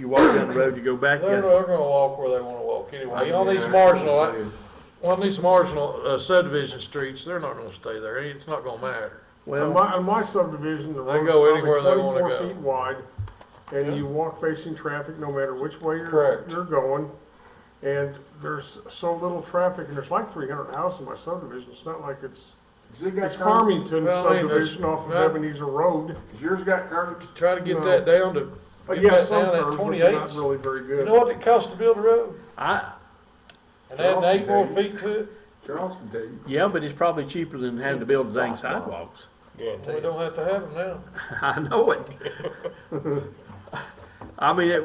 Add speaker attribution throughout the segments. Speaker 1: You walk down the road, you go back
Speaker 2: They're,
Speaker 1: in.
Speaker 2: they're gonna walk where they wanna walk anyway. On these
Speaker 1: Yeah,
Speaker 2: marginal,
Speaker 1: that's what I'm saying.
Speaker 2: on these marginal uh, subdivision streets, they're not gonna stay there. It's not gonna matter.
Speaker 3: On
Speaker 1: Well,
Speaker 3: my, on my subdivision, the
Speaker 2: They
Speaker 3: road's
Speaker 2: go
Speaker 3: probably
Speaker 2: anywhere they wanna
Speaker 3: twenty-four
Speaker 2: go.
Speaker 3: feet wide, and you walk facing traffic no matter which way you're,
Speaker 2: Correct.
Speaker 3: you're going. And there's so little traffic, and there's like three hundred houses in my subdivision, it's not like it's,
Speaker 4: Has it got
Speaker 3: it's
Speaker 4: curb-
Speaker 3: Farmington
Speaker 2: Well, I mean, there's-
Speaker 3: subdivision off of
Speaker 2: well-
Speaker 3: Ebenezer Road.
Speaker 4: Has yours got curves?
Speaker 2: Try to get
Speaker 3: No.
Speaker 2: that down to,
Speaker 3: Uh,
Speaker 2: get
Speaker 3: yeah,
Speaker 2: that
Speaker 3: some
Speaker 2: down at
Speaker 3: curves, but they're not
Speaker 2: twenty-eight.
Speaker 3: really very
Speaker 2: You
Speaker 3: good.
Speaker 2: know what it costs to build a road?
Speaker 1: I,
Speaker 2: And adding eight more feet to it?
Speaker 4: Charles can tell you.
Speaker 1: yeah, but it's probably cheaper than having to build dang sidewalks.
Speaker 2: We don't have to have them now.
Speaker 1: I know it. I mean, it,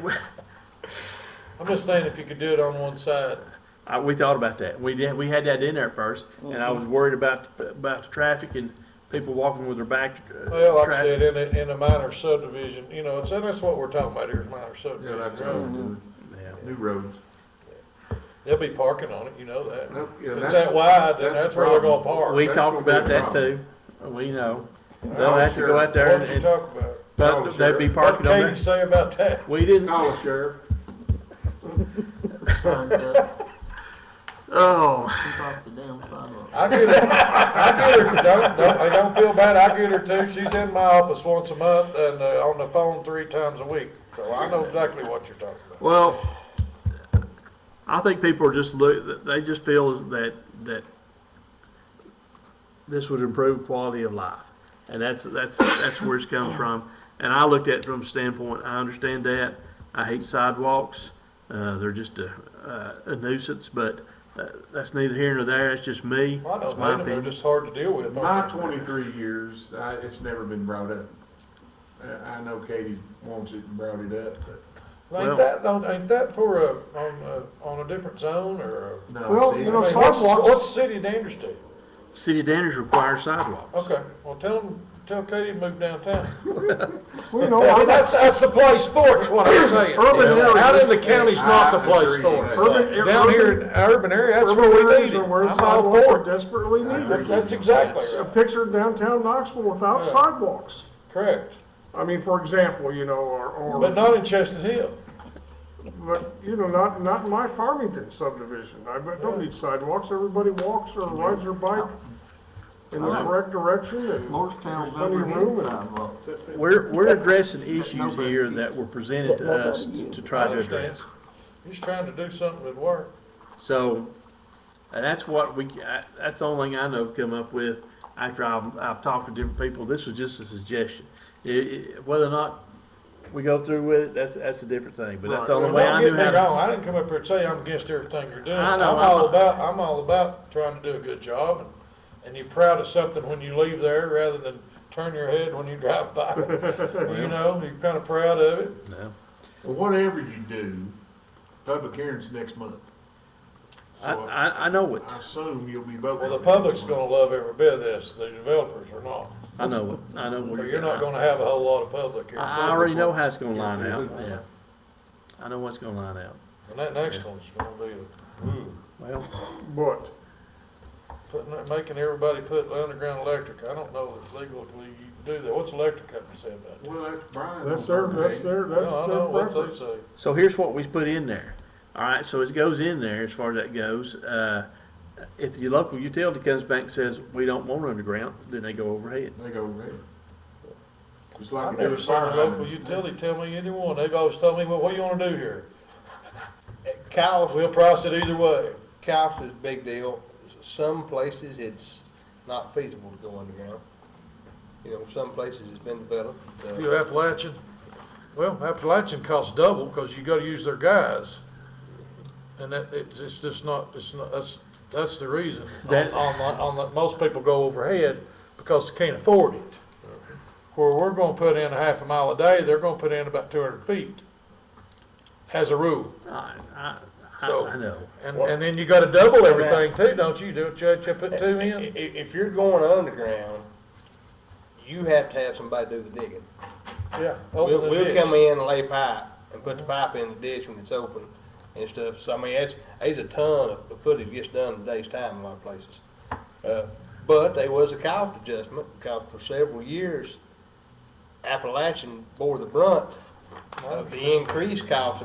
Speaker 2: I'm just saying if you could do it on one side.
Speaker 1: I, we thought about that. We did, we had that in there first, and I was
Speaker 2: Mm-hmm.
Speaker 1: worried about, the- about the traffic and people walking with their back. uh,
Speaker 2: Well, like I
Speaker 1: traffic.
Speaker 2: said, in a, in a minor subdivision, you know, it's, and that's what we're talking about here is minor
Speaker 4: Yeah, that's
Speaker 2: subdivision.
Speaker 4: how
Speaker 2: road.
Speaker 4: we do
Speaker 1: Yeah.
Speaker 4: it. New roads.
Speaker 2: They'll be parking on it, you know that.
Speaker 4: Nope, yeah,
Speaker 2: If it's
Speaker 4: that's-
Speaker 2: that wide, then
Speaker 4: that's
Speaker 2: that's
Speaker 4: the
Speaker 2: where they're gonna
Speaker 4: problem.
Speaker 2: park.
Speaker 1: We
Speaker 4: That's
Speaker 1: talked
Speaker 4: gonna be a
Speaker 1: about that too.
Speaker 4: problem.
Speaker 1: We know. They'll
Speaker 4: Oh,
Speaker 1: have to go
Speaker 4: sure.
Speaker 1: out there
Speaker 2: What
Speaker 1: and,
Speaker 2: did you
Speaker 1: and-
Speaker 2: talk about?
Speaker 1: but
Speaker 4: Oh,
Speaker 1: they'd be
Speaker 4: sure.
Speaker 2: What
Speaker 1: parking
Speaker 2: did
Speaker 1: on
Speaker 2: Katie
Speaker 1: there.
Speaker 2: say about that?
Speaker 1: We didn't,
Speaker 4: Call the sheriff.
Speaker 5: Sign up,
Speaker 1: oh,
Speaker 5: keep off the damn sidewalk.
Speaker 2: I get her, I get her, don't, don't, I don't feel bad, I get her too, she's in my office once a month and, uh, on the phone three times a week, so I know exactly what you're talking about.
Speaker 1: well, I think people are just look, they just feel is that, that this would improve quality of life. And that's, that's, that's where it comes from. And I looked at it from a standpoint, I understand that. I hate sidewalks. Uh, they're just a, a nuisance, but uh, that's neither here nor there. It's just me.
Speaker 2: I
Speaker 1: It's
Speaker 2: don't
Speaker 1: my
Speaker 2: mind them,
Speaker 1: opinion.
Speaker 2: they're just hard to deal with,
Speaker 4: My
Speaker 2: aren't they?
Speaker 4: twenty-three years, I, it's never been brought up. I, I know Katie wants it and brought it up, but.
Speaker 1: Well-
Speaker 2: Ain't that, though- ain't that for a, on a, on a different zone or? a-
Speaker 3: Well, you
Speaker 2: I
Speaker 3: know,
Speaker 2: mean, what's, what's
Speaker 3: sidewalks,
Speaker 2: city of Danders do?
Speaker 1: City of Danners requires sidewalks.
Speaker 2: Okay, well, tell them, tell Katie to move downtown.
Speaker 3: well, you know,
Speaker 2: I mean,
Speaker 3: I-
Speaker 2: that's, that's the place for it, is what I'm saying.
Speaker 3: Oh, Urban
Speaker 2: Yeah. Out in
Speaker 3: areas.
Speaker 2: the county's not the place for it.
Speaker 3: Urban-
Speaker 2: Down here in urban area, that's where
Speaker 3: urban
Speaker 2: we
Speaker 3: areas
Speaker 2: need it.
Speaker 3: are where
Speaker 2: I'm all
Speaker 3: sidewalks
Speaker 2: for
Speaker 3: are
Speaker 2: it.
Speaker 3: desperately
Speaker 2: That-
Speaker 3: needed.
Speaker 2: That's exactly
Speaker 3: A
Speaker 2: right.
Speaker 3: picture of downtown Knoxville without sidewalks.
Speaker 2: correct.
Speaker 3: I mean, for example, you know, or, or
Speaker 2: But not in Chestnut Hill.
Speaker 3: But, you know, not, not in my Farmington subdivision, I bet- don't need sidewalks, everybody walks or rides their bike in the correct direction and there's
Speaker 5: Morristown's
Speaker 3: plenty
Speaker 5: never
Speaker 3: of
Speaker 5: had
Speaker 3: room and.
Speaker 5: sidewalks.
Speaker 1: We're, we're addressing issues here that were presented to us to try to address.
Speaker 2: He's trying to do something that work.
Speaker 1: So, and that's what we, I- that's the only thing I know to come up with after I've, I've talked to different people. This was just a suggestion. I- I- Whether or not we go through with it, that's, that's a different thing, but that's the only
Speaker 2: Don't
Speaker 1: way I knew
Speaker 2: get me
Speaker 1: how to.
Speaker 2: wrong, I didn't come up here and tell you I'm against everything you're doing.
Speaker 1: I
Speaker 2: I'm
Speaker 1: know, I'm-
Speaker 2: all about, I'm all about trying to do a good job and, and you're proud of something when you leave there rather than turn your head when you drive by. You know, you're kind of proud of it.
Speaker 1: No.
Speaker 4: Well, whatever you do, public hearing's next month.
Speaker 1: I,
Speaker 4: So I
Speaker 1: I, I know it.
Speaker 4: I assume you'll be voting.
Speaker 2: Well, the
Speaker 4: next
Speaker 2: public's
Speaker 4: month.
Speaker 2: gonna love every bit of this, the developers are not.
Speaker 1: I know it. I know
Speaker 2: So
Speaker 1: where
Speaker 2: you're
Speaker 1: you're
Speaker 2: not
Speaker 1: going.
Speaker 2: gonna have a whole lot of public here.
Speaker 1: I I already know how it's gonna line out, yeah. I know what's gonna line out.
Speaker 2: And that next one's gonna be, ooh,
Speaker 1: Well.
Speaker 3: But,
Speaker 2: putting, that- making everybody put underground electric. I don't know if legally you can do that. What's the electric company say about that?
Speaker 4: Well, that's Brian.
Speaker 3: that's their, that's their, that's
Speaker 2: No, I
Speaker 3: their
Speaker 2: know what they
Speaker 3: preference.
Speaker 2: say.
Speaker 1: So here's what we put in there. All right, so it goes in there as far as that goes. Uh, if your local utility comes back and says, we don't want underground, then they go overhead.
Speaker 4: They go red. Just like.
Speaker 2: I've
Speaker 4: we do
Speaker 2: never
Speaker 4: with
Speaker 2: seen a
Speaker 4: fire
Speaker 2: local
Speaker 4: hydrants.
Speaker 2: utility tell me either one. They've always told me, well, what do you wanna do here? Cows. We'll price it either way.
Speaker 6: Couch is a big deal. Some places it's not feasible to go underground. You know, some places it's been developed. uh,
Speaker 2: You Appalachian, well, Appalachian costs double because you gotta use their guys. And that, it's, it's just not, it's not, that's, that's the reason. On,
Speaker 1: That-
Speaker 2: on, the- on, the- most people go overhead because they can't afford it. Where we're gonna put in a half a mile a day, they're gonna put in about two hundred feet as a rule.
Speaker 1: I, I, I,
Speaker 2: So-
Speaker 1: I know.
Speaker 2: And, and then you gotta double everything too, don't you? Don't you, you put two
Speaker 6: i- i-
Speaker 2: in?
Speaker 6: if you're going underground, you have to have somebody do the digging.
Speaker 2: Yeah.
Speaker 6: We'll,
Speaker 2: open the
Speaker 6: we'll
Speaker 2: ditch.
Speaker 6: come in and lay pipe and put the pipe in the ditch when it's open and stuff. So I mean, that's, there's a ton of footage gets done in a day's time in a lot of places. Uh, But there was a cost adjustment because for several years Appalachian bore the brunt uh, the increased cost of